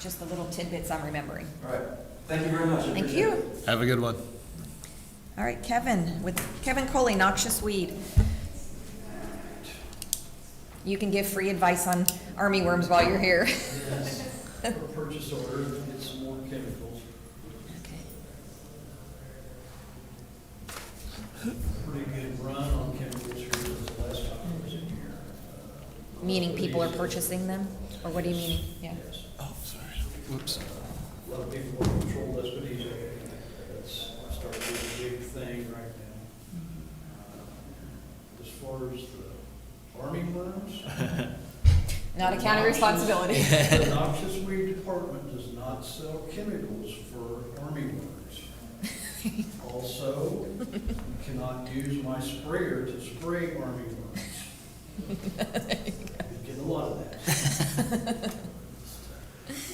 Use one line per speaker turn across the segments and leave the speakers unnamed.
just the little tidbits I'm remembering.
All right, thank you very much. I
Thank
appreciate it.
you.
Have a good one.
All right, Kevin, with Kevin Coley, Noxious Weed. You can give free advice on army worms while you're here.
Yes, for purchase order, get some more chemicals. Pretty good run on chemicals here this last time I was in here.
Meaning people are purchasing them? Or what do you mean? Yeah.
Yes,
Oh, sorry. Whoops.
a lot of people will control this, but he's, that's starting to be a big thing right now.
Mm-hmm.
Uh, As far as the army worms.
Not a county
noxious-
responsibility.
The noxious weed department does not sell chemicals for army worms. Also, you cannot use my sprayer to spray army worms. You get a lot of that.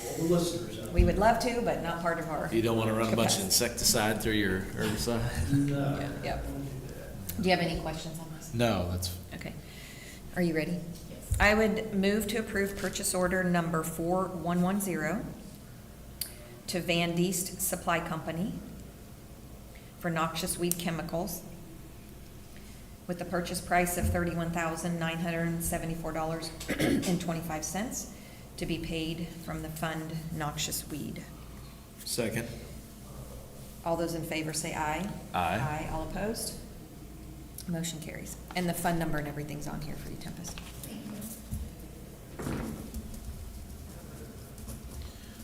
All the listeners out
We
there.
would love to, but not part of our.
You don't want to run a bunch of
capacity.
insecticide through your herbicide?
No,
Yeah, yep.
don't do that.
Do you have any questions on this?
No, that's,
Okay. Are you ready? Yes. I would move to approve purchase order number 4110 to Van Deest Supply Company for noxious weed chemicals with the purchase price of $31,974.25 to be paid from the fund noxious weed.
second.
All those in favor say aye.
Aye.
Aye, all opposed? Motion carries. And the fund number and everything's on here for you, Tempest.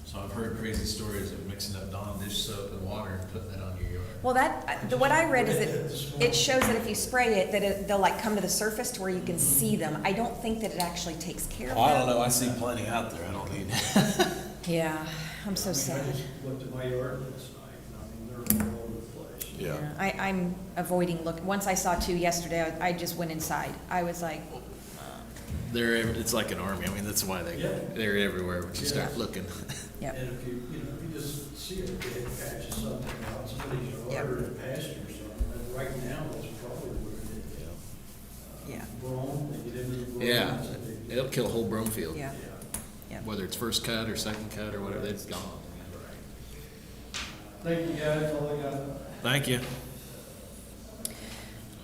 So I've heard crazy stories of mixing up Dawn dish soap and water and putting that on your yard.
Well, that, I- the- what I read is it, it shows that if you spray it, that it, they'll like come to the surface to where you can see them. I don't think that it actually takes care of
I don't
that.
know, I see plenty out there, I don't need.
Yeah, I'm
I
so
mean,
sad.
I just looked at my yard last night, and I mean, they're all over the place.
I, I'm avoiding look, once I saw two yesterday, I I just went inside. I was like,
They're, ev- it's like an army, I mean, that's why they,
Yeah.
they're everywhere when you start
Yeah.
looking.
yep,
And if you, you know, if you just see a dead patch of something out, somebody's
Yep.
ordered a pasture or something, but right now, that's probably where it is. Uh,
Yeah.
Brome, they get into the brome.
Yeah,
so they-
it'll kill a whole broom field.
yeah, yeah.
Whether it's first cut or second cut or whatever, it's gone.
Thank you, guys, all I got.
Thank you.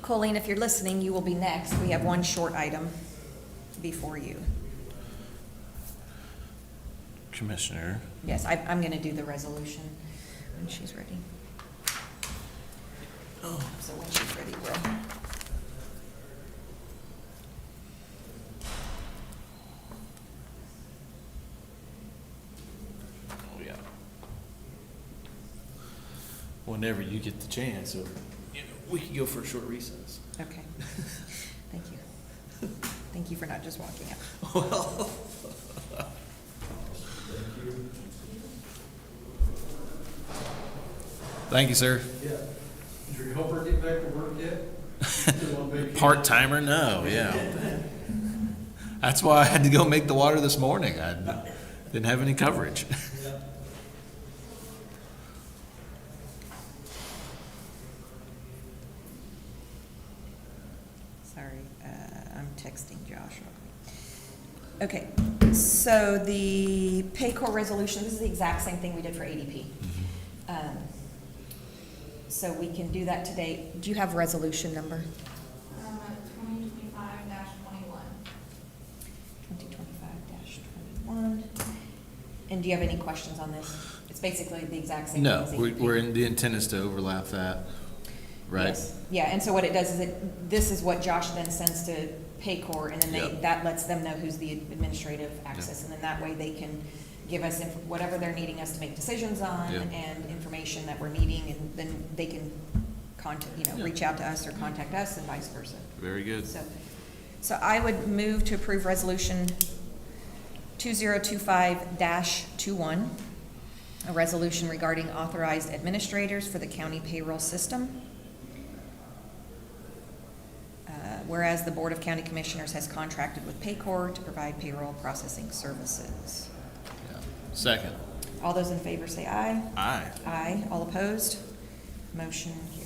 Colleen, if you're listening, you will be next. We have one short item before you.
Commissioner.
Yes, I, I'm gonna do the resolution when she's ready.
Oh.
So when she's ready, we'll.
Oh, yeah. Whenever you get the chance, or, you know, we could go for a short recess.
Okay. Thank you. Thank you for not just walking out.
Thank you, sir.
Yeah. Did your helper get back to work yet? Still on vacation?
Part timer, no, yeah. That's why I had to go make the water this morning. I didn't have any coverage.
Yeah.
Sorry, uh, I'm texting Josh. real quick. Okay, so the Paycor resolution, this is the exact same thing we did for ADP.
Mm-hmm.
Um, So we can do that today. Do you have resolution number?
Um, Twenty twenty-five dash twenty-one.
2025-21. And do you have any questions on this? It's basically the exact same.
No,
thing as
we-
ADP.
we're in, the intent is to overlap that, right?
Yes. Yeah, and so what it does is it, this is what Josh then sends to Paycor, and then they,
Yep.
that lets them know who's the administrative access, and then that way they can give us inf- whatever they're needing us to make decisions on
Yep.
and information that we're needing, and then they can contact, you know,
Yeah.
reach out to us or contact us and vice versa.
Very good.
So, so I would move to approve resolution two zero two five dash two one, a resolution regarding authorized administrators for the county payroll system. Uh, Whereas the Board of County Commissioners has contracted with Paycor to provide payroll processing services.
Yeah. Second.
All those in favor say aye.
Aye.
Aye. All opposed? Motion carries.